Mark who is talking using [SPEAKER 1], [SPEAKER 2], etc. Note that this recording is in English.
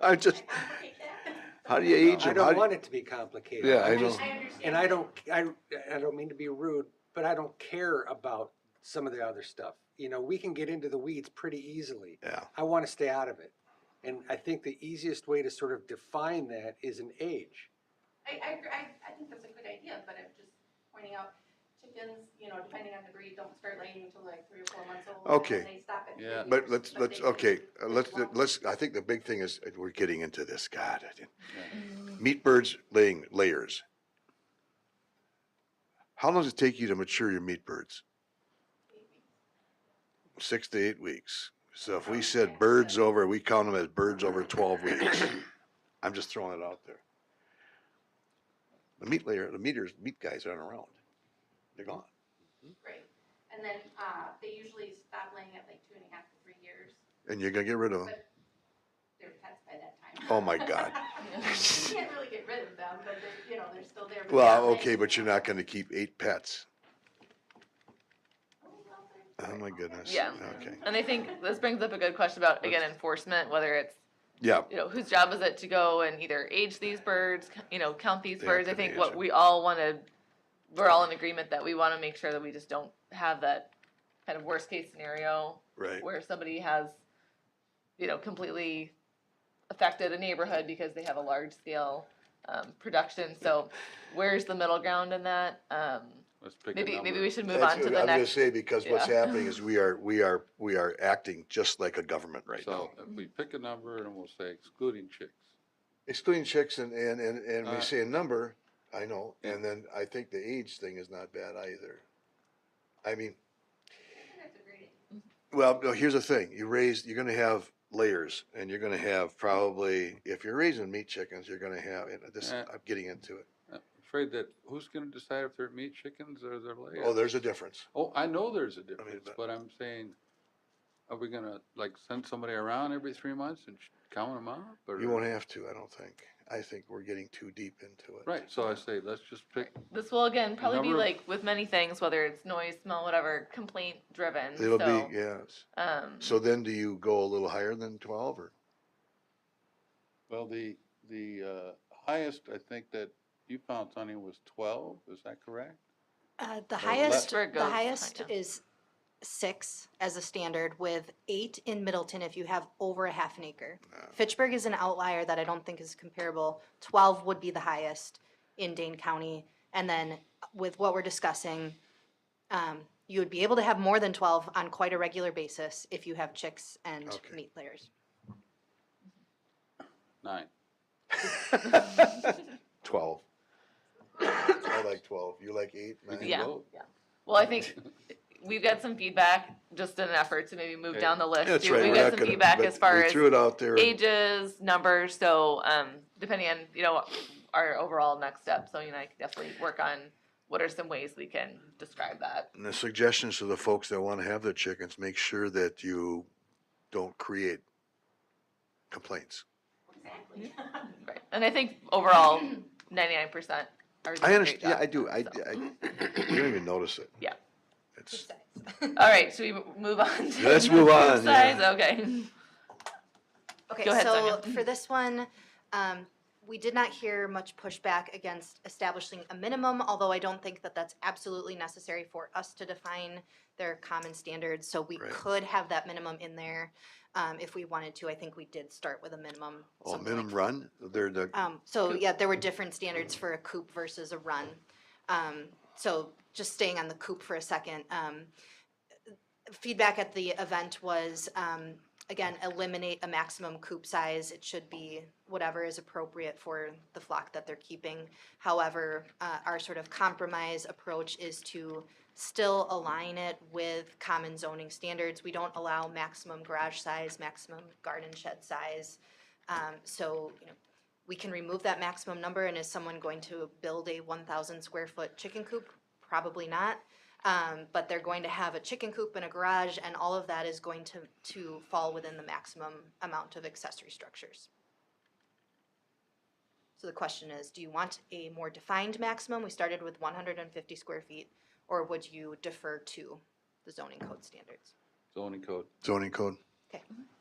[SPEAKER 1] I just, how do you age
[SPEAKER 2] I
[SPEAKER 1] them? How
[SPEAKER 2] don't
[SPEAKER 1] do
[SPEAKER 2] want
[SPEAKER 1] you-
[SPEAKER 2] it to be complicated.
[SPEAKER 1] Yeah, I
[SPEAKER 2] I'm
[SPEAKER 1] know.
[SPEAKER 2] just-
[SPEAKER 3] understand.
[SPEAKER 2] And I don't, I, I don't mean to be rude, but I don't care about some of the other stuff. You know, we can get into the weeds pretty easily.
[SPEAKER 1] Yeah,
[SPEAKER 2] I want to stay out of it. And I think the easiest way to sort of define that is an age.
[SPEAKER 3] I, I, agree- I, I think that's a good idea, but I'm just pointing out chickens, you know, depending on the breed, don't start laying until like three or four months old. and
[SPEAKER 1] Okay.
[SPEAKER 3] then They stop at.
[SPEAKER 4] Yeah.
[SPEAKER 3] three
[SPEAKER 1] but
[SPEAKER 3] years,
[SPEAKER 1] let's,
[SPEAKER 3] but
[SPEAKER 1] let's,
[SPEAKER 3] they-
[SPEAKER 1] okay, uh, let's,
[SPEAKER 3] Well-
[SPEAKER 1] let's, I think the big thing is, uh, we're getting into this, God. I didn't- Meat birds laying layers. How long does it take you to mature your meat birds? Six to eight weeks. So if we said birds over, we count them as birds over twelve weeks. I'm just throwing it out there. The meat layer, the meters, meat guys aren't around. They're gone.
[SPEAKER 3] Right, and then, uh, they usually stop laying at like two and a half to three years,
[SPEAKER 1] And you're gonna get rid of them.
[SPEAKER 3] but they're pets by that time.
[SPEAKER 1] Oh my God.
[SPEAKER 3] You can't really get rid of them, but they're, you know, they're still there. but they're
[SPEAKER 1] Well,
[SPEAKER 3] not
[SPEAKER 1] okay,
[SPEAKER 3] laying
[SPEAKER 1] but you're not
[SPEAKER 3] anymore.
[SPEAKER 1] gonna keep eight pets.
[SPEAKER 3] Oh, well, they're-
[SPEAKER 1] Oh my goodness.
[SPEAKER 5] Yeah.
[SPEAKER 1] Okay.
[SPEAKER 5] And I think this brings up a good question about, again, enforcement, whether it's,
[SPEAKER 1] Yeah,
[SPEAKER 5] you know, whose job is it to go and either age these birds, c- you know, count these
[SPEAKER 1] Yeah,
[SPEAKER 5] birds? I
[SPEAKER 1] could be
[SPEAKER 5] think
[SPEAKER 1] age
[SPEAKER 5] what
[SPEAKER 1] them.
[SPEAKER 5] we all want to, we're all in agreement that we want to make sure that we just don't have that kind of worst case scenario
[SPEAKER 1] right.
[SPEAKER 5] where somebody has, you know, completely affected a neighborhood because they have a large scale um, production. So where's the middle ground in that? Um,
[SPEAKER 4] Let's pick a
[SPEAKER 5] maybe
[SPEAKER 4] number.
[SPEAKER 5] maybe we should move
[SPEAKER 1] That's
[SPEAKER 5] on to
[SPEAKER 1] what
[SPEAKER 5] the
[SPEAKER 1] I'm gonna
[SPEAKER 5] next.
[SPEAKER 1] say, because what's
[SPEAKER 5] yeah.
[SPEAKER 1] happening is we are, we are, we are acting just like a government right now.
[SPEAKER 4] So if we pick a number and we'll say excluding chicks.
[SPEAKER 1] Excluding chicks and, and, and, and we
[SPEAKER 4] Uh,
[SPEAKER 1] say a number, I know, and
[SPEAKER 4] yeah.
[SPEAKER 1] then I think the age thing is not bad either. I mean,
[SPEAKER 3] I think that's a great idea.
[SPEAKER 1] Well, no, here's the thing. You raise, you're gonna have layers and you're gonna have probably, if you're raising meat chickens, you're gonna have, and this,
[SPEAKER 4] Yeah.
[SPEAKER 1] I'm getting into it.
[SPEAKER 4] I'm afraid that who's gonna decide if they're meat chickens or they're layers?
[SPEAKER 1] Oh, there's a difference.
[SPEAKER 4] Oh, I know there's a difference,
[SPEAKER 1] but-
[SPEAKER 4] but I'm saying, are we gonna like send somebody around every three months and sh- count them out? or-
[SPEAKER 1] You won't have to, I don't think. I think we're getting too deep into it.
[SPEAKER 4] Right, so I say, let's just pick,
[SPEAKER 5] This will again probably be
[SPEAKER 4] number of-
[SPEAKER 5] like with many things, whether it's noise, smell, whatever, complaint driven.
[SPEAKER 1] It'll
[SPEAKER 5] so,
[SPEAKER 1] be, yes.
[SPEAKER 5] Um,
[SPEAKER 1] So then do you go a little higher than twelve or?
[SPEAKER 4] well, the, the, uh, highest, I think that you found, Tony, was twelve, is that correct?
[SPEAKER 6] Uh, The
[SPEAKER 4] less.
[SPEAKER 6] highest,
[SPEAKER 5] Where
[SPEAKER 6] the
[SPEAKER 5] it goes, I
[SPEAKER 6] highest
[SPEAKER 5] know.
[SPEAKER 6] is six as a standard with eight in Middleton if you have over a half an acre.
[SPEAKER 1] No.
[SPEAKER 6] Fitchburg is an outlier that I don't think is comparable. Twelve would be the highest in Dane County. And then with what we're discussing, um, you would be able to have more than twelve on quite a regular basis if you have chicks and
[SPEAKER 1] Okay.
[SPEAKER 6] meat layers.
[SPEAKER 4] Nine.
[SPEAKER 1] Twelve. I like twelve. You like eight,
[SPEAKER 4] We
[SPEAKER 1] nine?
[SPEAKER 4] can
[SPEAKER 5] Yeah.
[SPEAKER 4] vote.
[SPEAKER 5] well, I think we've got some feedback just in an effort to maybe move
[SPEAKER 4] Okay.
[SPEAKER 5] down the list.
[SPEAKER 1] That's
[SPEAKER 5] too.
[SPEAKER 1] right.
[SPEAKER 5] We've
[SPEAKER 1] We're
[SPEAKER 5] got
[SPEAKER 1] not
[SPEAKER 5] some
[SPEAKER 1] gonna-
[SPEAKER 5] feedback
[SPEAKER 1] but
[SPEAKER 5] as far
[SPEAKER 1] we
[SPEAKER 5] as
[SPEAKER 1] Threw it out there. and-
[SPEAKER 5] ages, numbers. So um, depending on you know our overall next step, so you and I can definitely work on what are some ways we can describe that.
[SPEAKER 1] And the suggestions to the folks that want to have their chickens, make sure that you don't create complaints.
[SPEAKER 3] Exactly.
[SPEAKER 5] Right. And I think overall, ninety nine percent are doing
[SPEAKER 1] I
[SPEAKER 5] a great
[SPEAKER 1] understand, yeah,
[SPEAKER 5] job.
[SPEAKER 1] I do, I,
[SPEAKER 5] so.
[SPEAKER 1] I, you don't even notice it.
[SPEAKER 5] Yeah.
[SPEAKER 1] It's,
[SPEAKER 5] All right, should we m- move on? To
[SPEAKER 1] Let's move on,
[SPEAKER 5] Size,
[SPEAKER 1] yeah.
[SPEAKER 5] okay.
[SPEAKER 6] Okay,
[SPEAKER 5] Go ahead,
[SPEAKER 6] so
[SPEAKER 5] Sonia.
[SPEAKER 6] for this one, um, we did not hear much pushback against establishing a minimum, although I don't think that that's absolutely necessary for us to define their common standards, so we
[SPEAKER 1] Right.
[SPEAKER 6] could have that minimum in there, um, if we wanted to, I think we did start with a minimum.
[SPEAKER 1] oh,
[SPEAKER 6] something like
[SPEAKER 1] minimum run, they're the,
[SPEAKER 6] um, so
[SPEAKER 5] Coop.
[SPEAKER 6] yeah, there were different standards for a coop versus a run. Um, so just staying on the coop for a second, um, feedback at the event was, um, again, eliminate a maximum coop size. It should be whatever is appropriate for the flock that they're keeping. However, uh, our sort of compromise approach is to still align it with common zoning standards. We don't allow maximum garage size, maximum garden shed size. Um, so, you know, we can remove that maximum number, and is someone going to build a one thousand square foot chicken coop? Probably not. Um, but they're going to have a chicken coop and a garage, and all of that is going to, to fall within the maximum amount of accessory structures. So the question is, do you want a more defined maximum? We started with one hundred and fifty square feet, or would you defer to the zoning code standards?
[SPEAKER 4] Zoning code.
[SPEAKER 1] zoning code.